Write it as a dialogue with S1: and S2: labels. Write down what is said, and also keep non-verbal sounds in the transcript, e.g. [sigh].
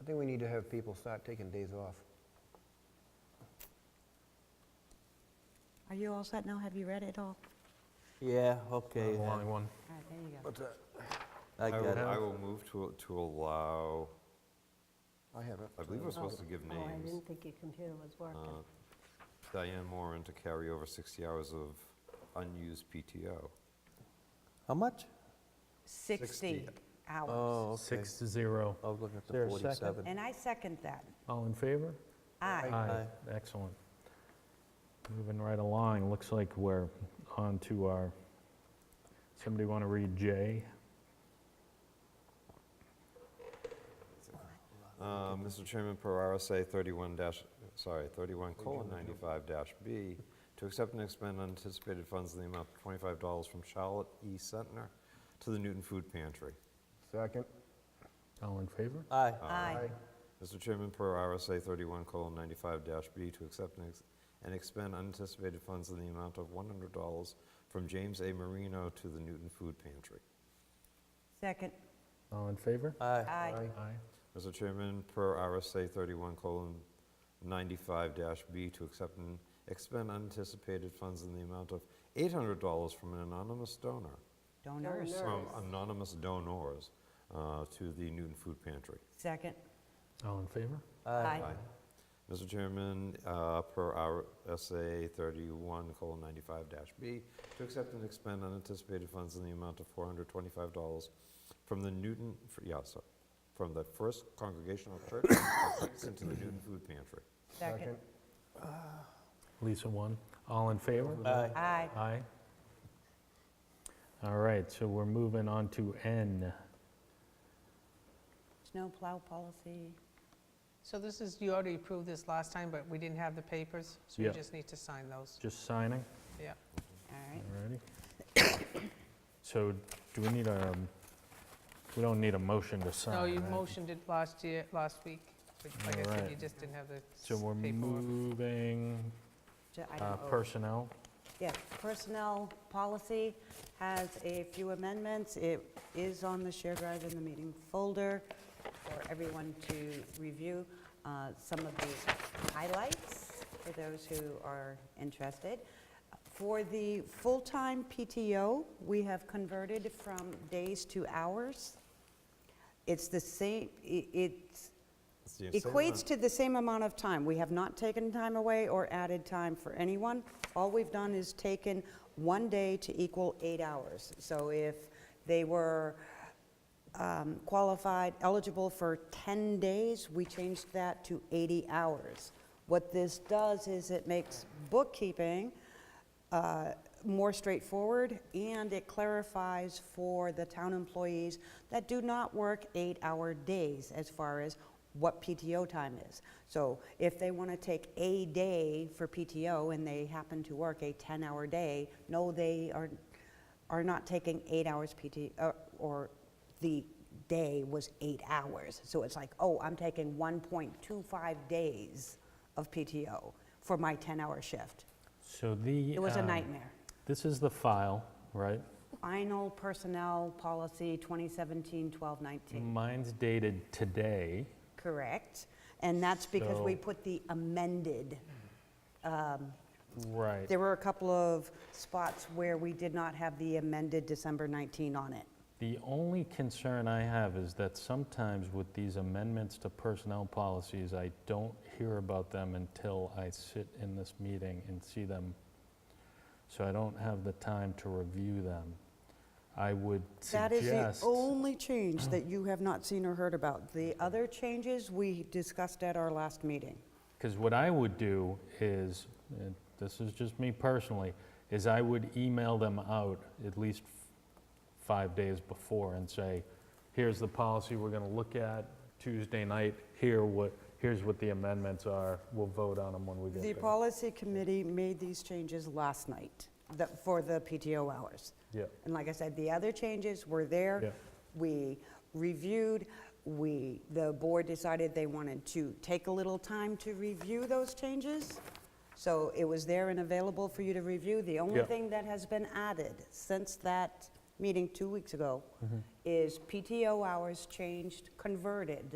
S1: I think we need to have people start taking days off.
S2: Are you all set now? Have you read it all?
S3: Yeah, okay,
S4: A long
S3: then.
S4: one.
S2: All right, there you go.
S1: What's that?
S3: I
S5: I
S3: got
S5: will,
S3: it.
S5: I will move to, to allow,
S1: I have it.
S5: I believe we're supposed to give
S6: Oh, I
S5: names.
S6: didn't think your computer was working.
S5: uh, Diane Moran to carry over 60 hours of unused PTO.
S3: How much?
S2: 60 hours.
S3: Oh, okay.
S4: Six to zero.
S3: I was looking at
S4: Is there
S3: the
S4: a second?
S3: 47.
S2: And I second that.
S4: All in favor?
S2: Aye.
S3: Aye.
S4: Excellent. Moving right along, looks like we're on to our, somebody want to read J?
S5: Uh, Mr. Chairman, per RSA 31 dash, sorry, 31 colon 95 dash B, to accept and expend unanticipated funds in the amount of $25 from Charlotte E. Sentner to the Newton Food Pantry.
S1: Second.
S4: All in favor?
S3: Aye.
S2: Aye.
S5: Mr. Chairman, per RSA 31 colon 95 dash B, to accept and ex- and expend unanticipated funds in the amount of $100 from James A. Marino to the Newton Food Pantry.
S2: Second.
S4: All in favor?
S3: Aye.
S2: Aye.
S1: Aye.
S4: Aye.
S5: Mr. Chairman, per RSA 31 colon 95 dash B, to accept and expend unanticipated funds in the amount of $800 from an anonymous donor,
S2: Donors.
S5: from anonymous donors uh, to the Newton Food Pantry.
S2: Second.
S4: All in favor?
S2: Aye.
S5: Mr. Chairman, uh, per RSA 31 colon 95 dash B, to accept and expend unanticipated funds in the amount of $425 from the Newton, fr- yeah, sorry, from the First Congregational Church [coughs] of Kingston to the Newton Food Pantry.
S2: Second.
S4: Lisa, one. All in favor?
S3: Aye.
S2: Aye.
S4: Aye. All right, so we're moving on to N.
S2: Snowplow policy.
S7: So this is, you already approved this last time, but we didn't have the papers, so you
S4: Yeah.
S7: just need to sign those.
S4: Just signing,
S7: Yeah.
S2: All right.
S4: all righty. [coughs] So do we need a, we don't need a motion to sign,
S7: No, you
S4: right?
S7: motioned it last year, last week, but like I said, you
S4: Alright.
S7: just didn't have the
S4: So we're
S7: paperwork.
S4: moving
S2: So I
S4: uh,
S2: don't know.
S4: personnel.
S2: Yes, personnel policy has a few amendments. It is on the shared drive in the meeting folder for everyone to review uh, some of the highlights for those who are interested. For the full-time PTO, we have converted from days to hours. It's the same, i- it's
S5: It's the same
S2: equates
S5: amount.
S2: to the same amount of time. We have not taken time away or added time for anyone. All we've done is taken one day to equal eight hours. So if they were um, qualified, eligible for 10 days, we changed that to 80 hours. What this does is it makes bookkeeping uh, more straightforward, and it clarifies for the town employees that do not work eight-hour days as far as what PTO time is. So if they want to take a day for PTO and they happen to work a 10-hour day, no, they are, are not taking eight hours PT, uh, or the day was eight hours. So it's like, oh, I'm taking 1.25 days of PTO for my 10-hour shift.
S4: So the.
S2: It was a
S4: um,
S2: nightmare.
S4: This is the file, right?
S2: Final personnel policy 2017-1219.
S4: Mine's dated today.
S2: Correct. And that's because we
S4: So-
S2: put the amended.
S4: Right.
S2: There were a couple of spots where we did not have the amended December 19 on it.
S4: The only concern I have is that sometimes with these amendments to personnel policies, I don't hear about them until I sit in this meeting and see them. So I don't have the time to review them. I would
S2: That is the
S4: suggest, Mm.
S2: only change that you have not seen or heard about. The other changes we discussed at our last meeting.
S4: because what I would do is, and this is just me personally, is I would email them out at least f- five days before and say, here's the policy we're going to look at Tuesday night, here what, here's what the amendments are, we'll vote on them when we
S2: The
S4: get there.
S2: policy committee made these changes last night the- for the PTO hours.
S4: Yeah,
S2: And like I said, the other changes were
S4: Yeah.
S2: there. We reviewed, we, the board decided they wanted to take a little time to review those changes. So it was there and available for you to review. The only
S4: Yeah.
S2: thing that has been added since
S4: Mm-hmm.
S2: that meeting two weeks ago is PTO hours changed, converted